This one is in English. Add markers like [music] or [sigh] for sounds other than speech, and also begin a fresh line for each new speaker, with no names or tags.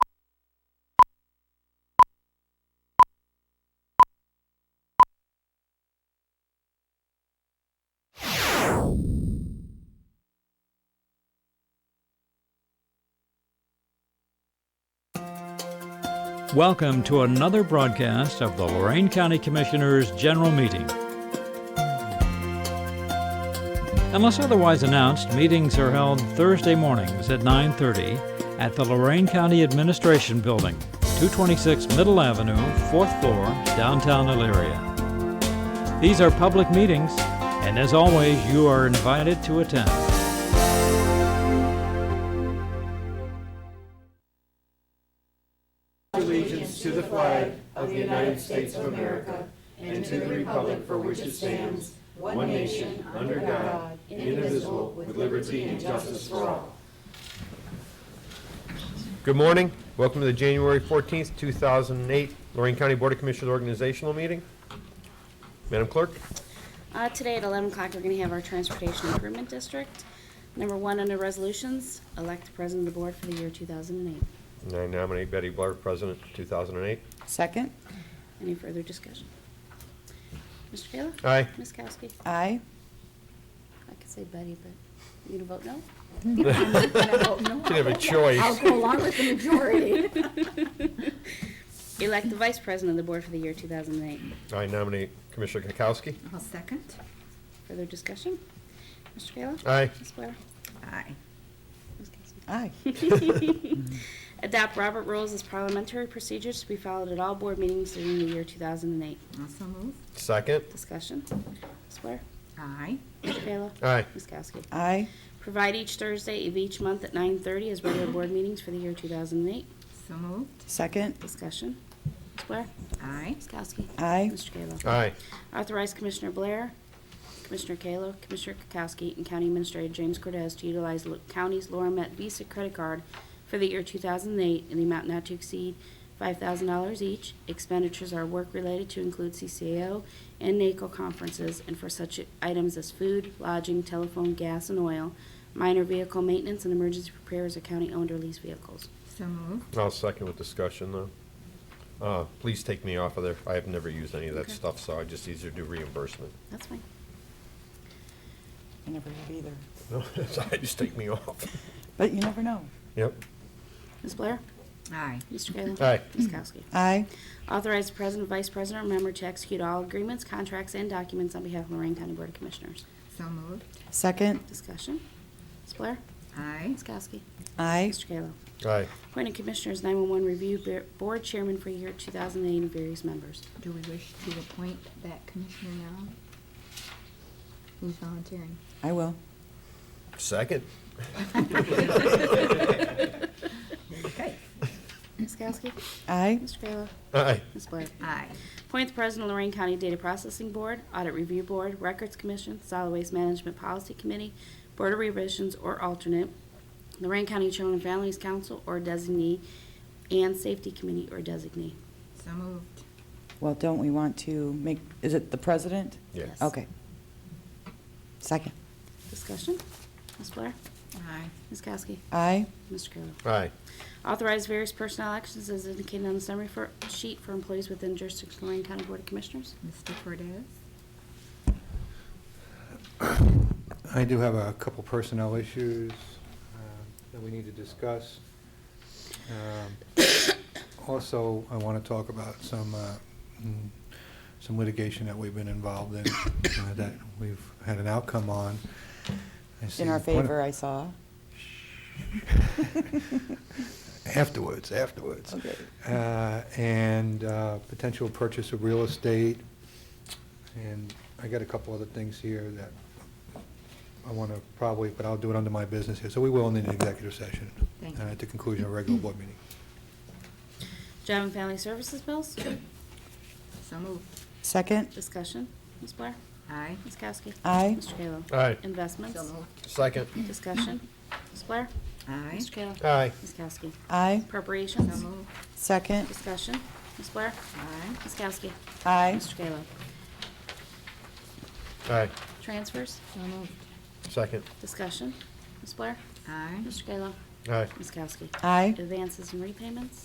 Welcome to another broadcast of the Lorraine County Commissioners' General Meeting. Unless otherwise announced, meetings are held Thursday mornings at 9:30 at the Lorraine County Administration Building, 226 Middle Avenue, 4th floor, downtown Elyria. These are public meetings, and as always, you are invited to attend.
Good morning. Welcome to the January 14th, 2008 Lorraine County Board of Commissioners Organizational Meeting. Madam Clerk?
Uh, Today at 11 o'clock, we're going to have our Transportation Improvement District. Number one under resolutions, elect the president of the board for the year 2008.
And I nominate Betty Blair, President, 2008.
Second,
Any further discussion? Mr. Kayla?
Aye.
Ms. Kowski?
aye.
I could say Betty, but you gonna vote no?
Didn't have a choice.
go along with the majority.
Elect the vice president of the board for the year 2008.
I nominate Commissioner Kukowski.
I'll second.
Further discussion? Mr. Kayla?
Aye.
Ms. Blair?
Aye.
Ms. Kowski?
Aye.
[laughs] Adopt Robert rules as parliamentary procedures to be followed at all board meetings during the year 2008.
Also move.
Second.
Discussion? Ms. Blair?
Aye.
Mr. Kayla?
Aye.
Ms. Kowski?
Aye.
Provide each Thursday of each month at 9:30 as regular board meetings for the year 2008.
So moved.
Second,
Discussion. Ms. Blair?
Aye.
Ms. Kowski?
Aye.
Mr. Kayla?
Aye.
Authorize Commissioner Blair, Commissioner Kayla, Commissioner Kukowski, and County Administrator James Cordez to utilize Lo- County's Laura Met Visa credit card for the year 2008 in the amount not to exceed $5,000 each. Expenditures are work-related to include CCAO and NACO conferences and for such items as food, lodging, telephone, gas, and oil, minor vehicle maintenance, and emergency repairs of county-owned or leased vehicles.
So moved.
I'll second with discussion, though. Uh, Please take me off of there. I have never used any of that
Okay.
stuff, so I just easier to do reimbursement.
That's fine.
I never have either,
[laughs] No, so I Just take me off.
but you never know.
Yep.
Ms. Blair?
Aye.
Mr. Kayla?
Aye.
Ms. Kowski?
Aye.
Authorize the president, vice president, or member to execute all agreements, contracts, and documents on behalf of Lorraine County Board of Commissioners.
So moved.
Second,
Discussion. Ms. Blair?
Aye.
Ms. Kowski?
aye.
Mr. Kayla?
Aye.
Appointed Commissioners 911 Review Bo- Board Chairman for year 2008 and various members.
Do we wish to appoint that commissioner now? Who's volunteering?
I will.
Second.
Okay.
Ms. Kowski?
Aye.
Mr. Kayla?
Aye.
Ms. Blair?
Aye.
Appoint the President of Lorraine County Data Processing Board, Audit Review Board, Records Commission, Solid Waste Management Policy Committee, Board of Revisions or alternate, Lorraine County Children and Families Council or designee, and Safety Committee or designee.
So moved.
Well, don't we want to make, is it the president?
Yeah.
Yes.
Okay. Second,
Discussion? Ms. Blair?
Aye.
Ms. Kowski?
aye.
Mr. Kayla?
Aye.
Authorize various personnel actions as indicated on the summary for- sheet for employees within jurisdiction of Lorraine County Board of Commissioners.
Mr. Cordez?
I do have a couple personnel issues uh, that we need to discuss. Um, Also, I want to talk about some, uh, mm, some litigation that we've been involved in, uh, that we've had an outcome on. I
In our
see one-
favor, I saw.
Afterwards, afterwards.
Okay.
Uh, And uh, potential purchase of real estate. And I got a couple other things here that I want to probably, but I'll do it under my business here. So we will need an executive session
Thank
uh,
you.
at the conclusion of regular board meeting.
Job and Family Services bills?
So moved.
Second,
Discussion? Ms. Blair?
Aye.
Ms. Kowski?
Aye.
Mr. Kayla?
Aye.
Investments?
So moved.
Second.
Discussion. Ms. Blair?
Aye.
Mr. Kayla?
Aye.
Ms. Kowski?
aye.
So
Appropriations?
moved.
Second,
Discussion. Ms. Blair?
Aye.
Ms. Kowski?
aye.
Mr. Kayla?
Aye.
Transfers?
So moved.
Second.
Discussion. Ms. Blair?
Aye.
Mr. Kayla?
Aye.
Ms. Kowski?
Aye.
Advances and repayments?